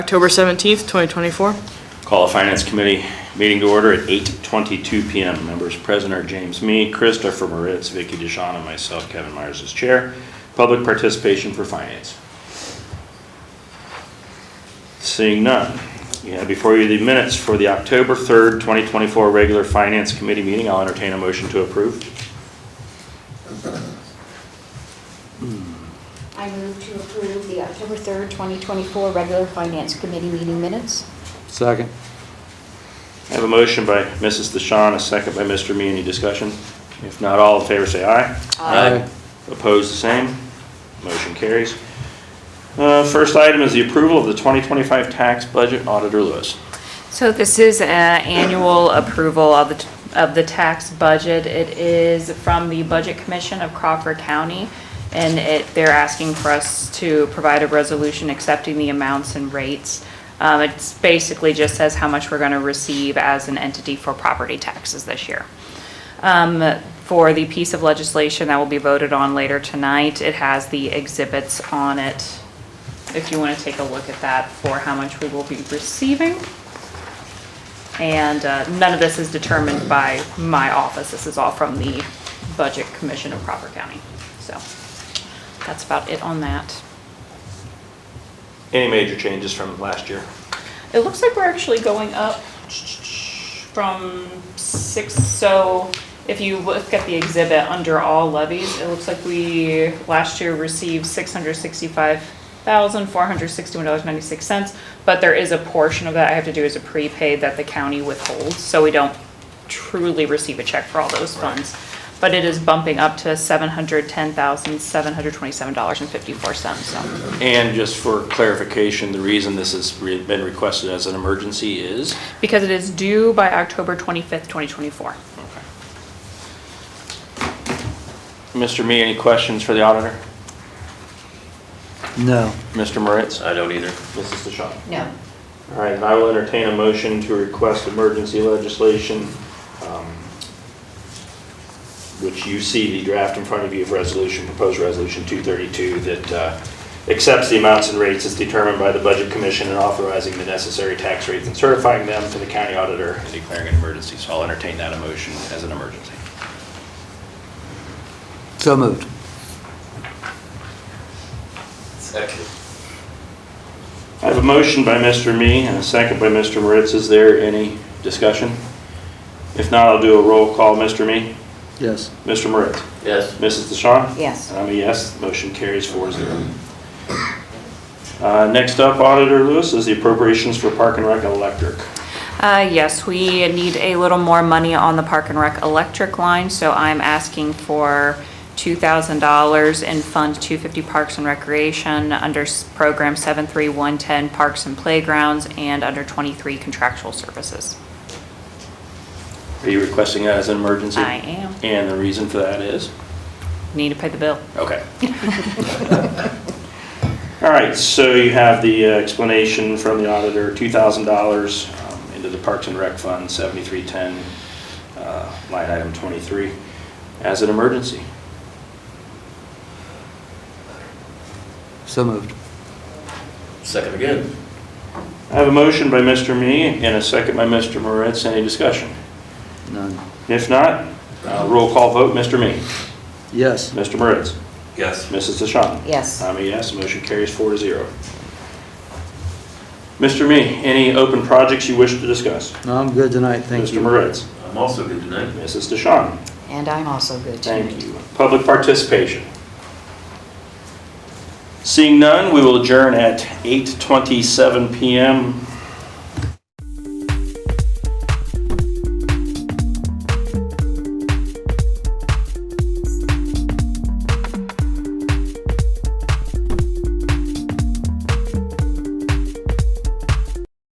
October 17th, 2024. Call the Finance Committee meeting to order at 8:22 PM. Members present are James Me, Christopher Moritz, Vicky DeShawn, and myself, Kevin Myers, as chair. Public participation for finance. Seeing none. You have before you the minutes for the October 3rd, 2024 regular Finance Committee meeting. I'll entertain a motion to approve. I move to approve the October 3rd, 2024 regular Finance Committee meeting minutes. Second. I have a motion by Mrs. DeShawn, a second by Mr. Me. Any discussion? If not, all in favor say aye. Aye. Opposed, the same. Motion carries. Uh, First item is the approval of the 2025 tax budget, Auditor Lewis. So this is an annual approval of the, of the tax budget. It is from the Budget Commission of Crawford County, and it, they're asking for us to provide a resolution accepting the amounts and rates. Um, It's basically just says how much we're going to receive as an entity for property taxes this year um, for the piece of legislation that will be voted on later tonight. It has the exhibits on it, if you want to take a look at that for how much we will be receiving. And uh, none of this is determined by my office. This is all from the Budget Commission of Crawford County. So that's about it on that. Any major changes from last year? It looks like we're actually going up from six, so if you look at the exhibit under all levies, it looks like we, last year received six hundred sixty-five thousand, four hundred sixty-one dollars, ninety-six cents. But there is a portion of that I have to do as a prepaid that the county withholds, so we don't truly receive a check for all those funds. But it is bumping up to seven hundred ten thousand, seven hundred twenty-seven dollars and fifty-four cents, so. And just for clarification, the reason this has re- been requested as an emergency is? because it is due by October 25th, 2024. Mr. Me, any questions for the auditor? No. Mr. Moritz? I don't either. Mrs. DeShawn? No. All right, and I will entertain a motion to request emergency legislation, um, which you see the draft in front of you of resolution, proposed resolution 232, that uh, accepts the amounts and rates as determined by the Budget Commission and authorizing the necessary tax rates and certifying them to the county auditor and declaring an emergency. So I'll entertain that motion as an emergency. So moved. Second. I have a motion by Mr. Me and a second by Mr. Moritz. Is there any discussion? If not, I'll do a roll call. Mr. Me? Yes. Mr. Moritz? Yes. Mrs. DeShawn? Yes. And I'm a yes, motion carries four zero. Uh, Next up, Auditor Lewis, is the appropriations for Park and Rec and Electric. Uh, yes, we need a little more money on the Park and Rec electric line, so I'm asking for $2,000 in Fund 250 Parks and Recreation, under s- Program 73110 Parks and Playgrounds, and under 23 Contractual Services. Are you requesting that as an emergency? I am. And the reason for that is? Need to pay the bill. Okay. All right, so you have the uh, explanation from the auditor, $2,000 um, into the Parks and Rec Fund, 7310, uh, line item 23, as an emergency. So moved. Second again. I have a motion by Mr. Me and a second by Mr. Moritz. Any discussion? None. If not, uh, roll call vote, Mr. Me, Yes. Mr. Moritz, Yes. Mrs. DeShawn. Yes. I'm a yes, motion carries four to zero. Mr. Me, any open projects you wish to discuss? No, I'm good tonight, thank you. Mr. Moritz, I'm also good tonight. Mrs. DeShawn, And I'm also good tonight. thank you. Public participation. Seeing none, we will adjourn at 8:27 PM.